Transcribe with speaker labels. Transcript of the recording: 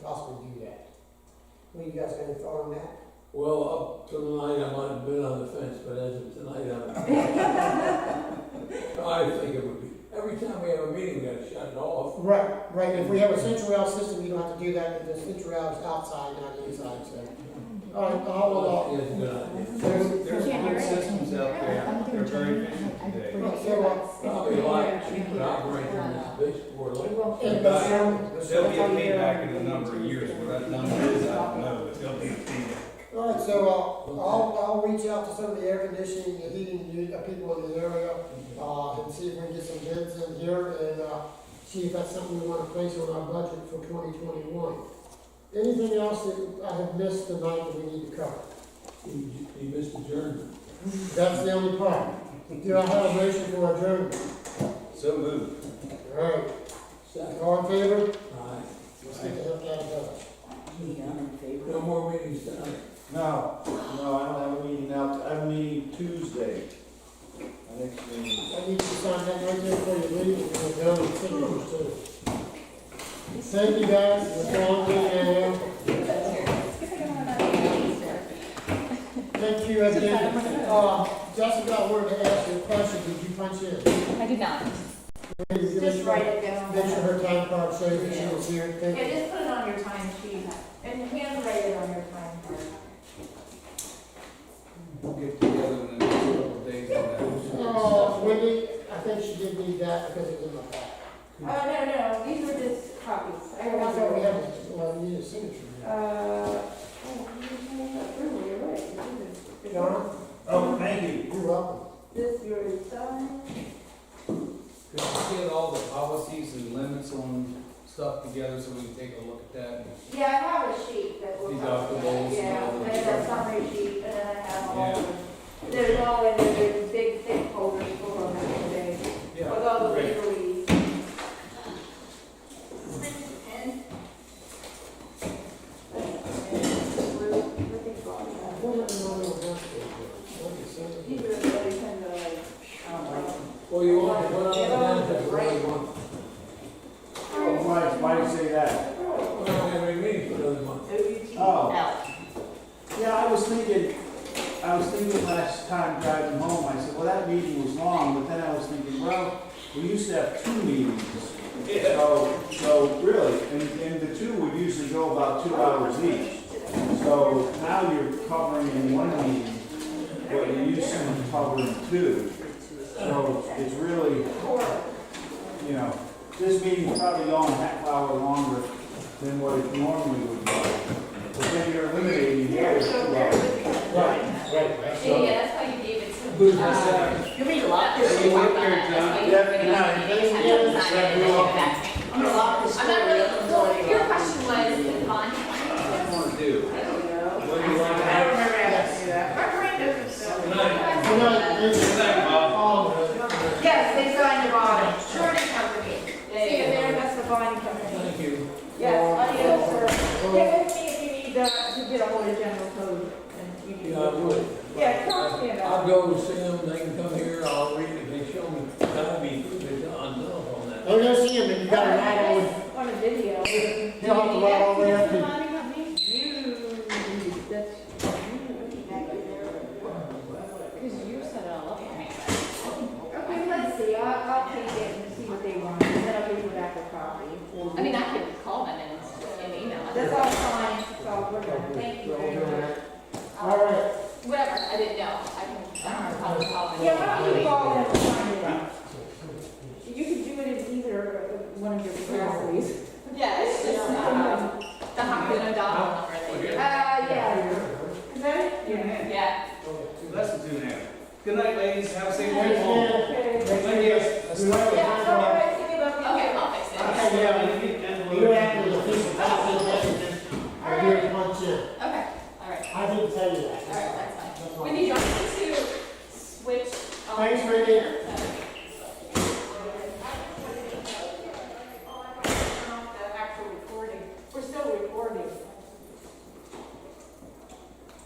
Speaker 1: possibly do that? I mean, you guys got any thought on that?
Speaker 2: Well, up to tonight, I might have been on the fence, but as of tonight, I'm, I think it would be, every time we have a meeting, we gotta shut it off.
Speaker 1: Right, right, if we have a central rail system, you don't have to do that, if the central rail is outside, not inside, so. All right,
Speaker 3: Oh,
Speaker 1: I'll hold off.
Speaker 2: Yes, good idea.
Speaker 3: There's, there's
Speaker 4: Can't hear
Speaker 3: good
Speaker 4: it.
Speaker 3: systems out there, they're very efficient
Speaker 4: I
Speaker 3: today.
Speaker 4: forget
Speaker 1: So, uh,
Speaker 4: what's-
Speaker 2: Probably a lot cheaper to operate than this big four
Speaker 4: It
Speaker 2: lane.
Speaker 4: won't be-
Speaker 1: And the sound- the
Speaker 3: There'll
Speaker 1: sound-
Speaker 3: be a feedback in a number of years, what that number is, I don't know, but there'll be a feedback.
Speaker 1: All right, so, uh, I'll, I'll reach out to some of the air conditioning, and heating, u- uh, people in the area, uh, and see if we can get some bids in here and, uh, see if that's something we wanna place on our budget for twenty twenty-one. Anything else that I have missed tonight that we need to cover?
Speaker 2: You you missed the journey.
Speaker 1: That's the only part. Do I have a motion for adjournment?
Speaker 3: So moved.
Speaker 1: All right,
Speaker 2: Second,
Speaker 1: all in favor?
Speaker 2: aye.
Speaker 1: Let's get the heck out of here.
Speaker 2: No more meetings tonight.
Speaker 5: No, no, I don't have a meeting now, I have a meeting Tuesday. My next meeting.
Speaker 1: I need you to sign that right there before you leave, and we'll go and finish too. Thank you guys, it's a long weekend. Thank you again. Uh, Jessica, I wanted to ask you a question, did you punch in?
Speaker 6: I did not.
Speaker 1: Maybe you
Speaker 4: Just write it down.
Speaker 1: Make sure her time card shows that she was here, thank
Speaker 4: Yeah,
Speaker 1: you.
Speaker 4: just put it on your time sheet and handwrite it on your time card.
Speaker 3: We'll get together in the next couple of days on that.
Speaker 1: Uh, Wendy, I think she did need that because it was in my pack.
Speaker 4: Oh, no, no, these are just copies. I
Speaker 1: I
Speaker 4: already-
Speaker 1: thought we had, well, we need a signature.
Speaker 4: Uh, oh, you can have that earlier, right? This is-
Speaker 1: Donna?
Speaker 5: Oh, thank you.
Speaker 1: You're welcome.
Speaker 4: This yours, done.
Speaker 3: Could you get all the policies and limits on stuff together so we can take a look at that?
Speaker 4: Yeah, I have a sheet that will.
Speaker 3: Deductibles and all
Speaker 4: Yeah,
Speaker 3: that.
Speaker 4: I have a summary sheet and then I have all
Speaker 3: Yeah.
Speaker 4: the, there's all in the big thick folder full of them today. With all the
Speaker 3: Great.
Speaker 4: legalese.
Speaker 1: Well, let me know when we're done. Okay, so-
Speaker 4: These are really kind of like,
Speaker 2: Well, you want to, what I'm gonna do, what do you want?
Speaker 5: Oh, why, why do you say that?
Speaker 2: We're not having any meetings for another month.
Speaker 4: OUT.
Speaker 5: Oh,
Speaker 6: Out.
Speaker 5: yeah, I was thinking, I was thinking last time driving home, I said, well, that meeting was long, but then I was thinking, well, we used to have two meetings. So, so really, and, and the two would usually go about two hours each. So now you're covering in one meeting what you used to cover in two. So it's really, you know, this meeting is probably going a half hour longer than what it normally would be. But then you're eliminating the other two hours.
Speaker 1: Right, right, right.
Speaker 6: Yeah, that's why you gave it to.
Speaker 3: Who's the
Speaker 6: uh,
Speaker 3: second?
Speaker 6: You read a lot. of
Speaker 5: Hey, you
Speaker 6: talk
Speaker 5: work
Speaker 6: about
Speaker 5: here,
Speaker 6: that. That's
Speaker 5: John.
Speaker 6: why you
Speaker 5: Yeah,
Speaker 6: bring it
Speaker 5: no,
Speaker 6: up. You
Speaker 5: thank
Speaker 6: have
Speaker 5: you.
Speaker 6: to sign it and then
Speaker 5: Yeah.
Speaker 6: give it back to me.
Speaker 5: I'm gonna lock this
Speaker 6: I'm not
Speaker 5: door.
Speaker 6: really, well, your question was, is Bonnie,
Speaker 3: What do you want to do?
Speaker 4: I
Speaker 3: What
Speaker 4: don't know.
Speaker 3: do you want to
Speaker 4: I
Speaker 3: have?
Speaker 4: don't remember having to do that. My brain doesn't sell.
Speaker 1: Good night, thank you.
Speaker 4: Yes, they signed the bond, surety company. See, there, that's the bond company.
Speaker 2: Thank you.
Speaker 4: Yes, audio, sir. Get with me if you need, uh, to get a hold of general code and you need.
Speaker 2: Yeah, I would.
Speaker 4: Yeah, talk to me
Speaker 2: I'll
Speaker 4: about it.
Speaker 2: go with Sam, they can come here, I'll read it, they show me, that'll be, they're on on that.
Speaker 1: Oh, yes, you, but you gotta ride all the,
Speaker 4: On a video. You,
Speaker 1: you have to ride all the way up to.
Speaker 6: Bonnie got me?
Speaker 4: that's, you.
Speaker 6: Because you set it all up for me.
Speaker 4: Okay, let's see, I'll, I'll take it and see what they want, and then I'll give you back the copy.
Speaker 6: I mean, I could call them and, and email them.
Speaker 4: That's all fine, it's all good, thank you very much.
Speaker 1: All right,
Speaker 6: Whatever, I didn't know. I can, I can probably call them.
Speaker 4: Yeah, why don't you call them and find it out? You can do it in either of- one of your capacities.
Speaker 6: Yeah, it's just, um, the Hockman O'Donnell number.
Speaker 4: Uh,
Speaker 6: that
Speaker 4: yeah. Is that it? Yeah.
Speaker 6: you- Yeah.
Speaker 3: That's the two now. Good night, ladies. Have a safe
Speaker 1: thanks,
Speaker 3: night.
Speaker 1: man.
Speaker 6: Uh,
Speaker 4: Oh,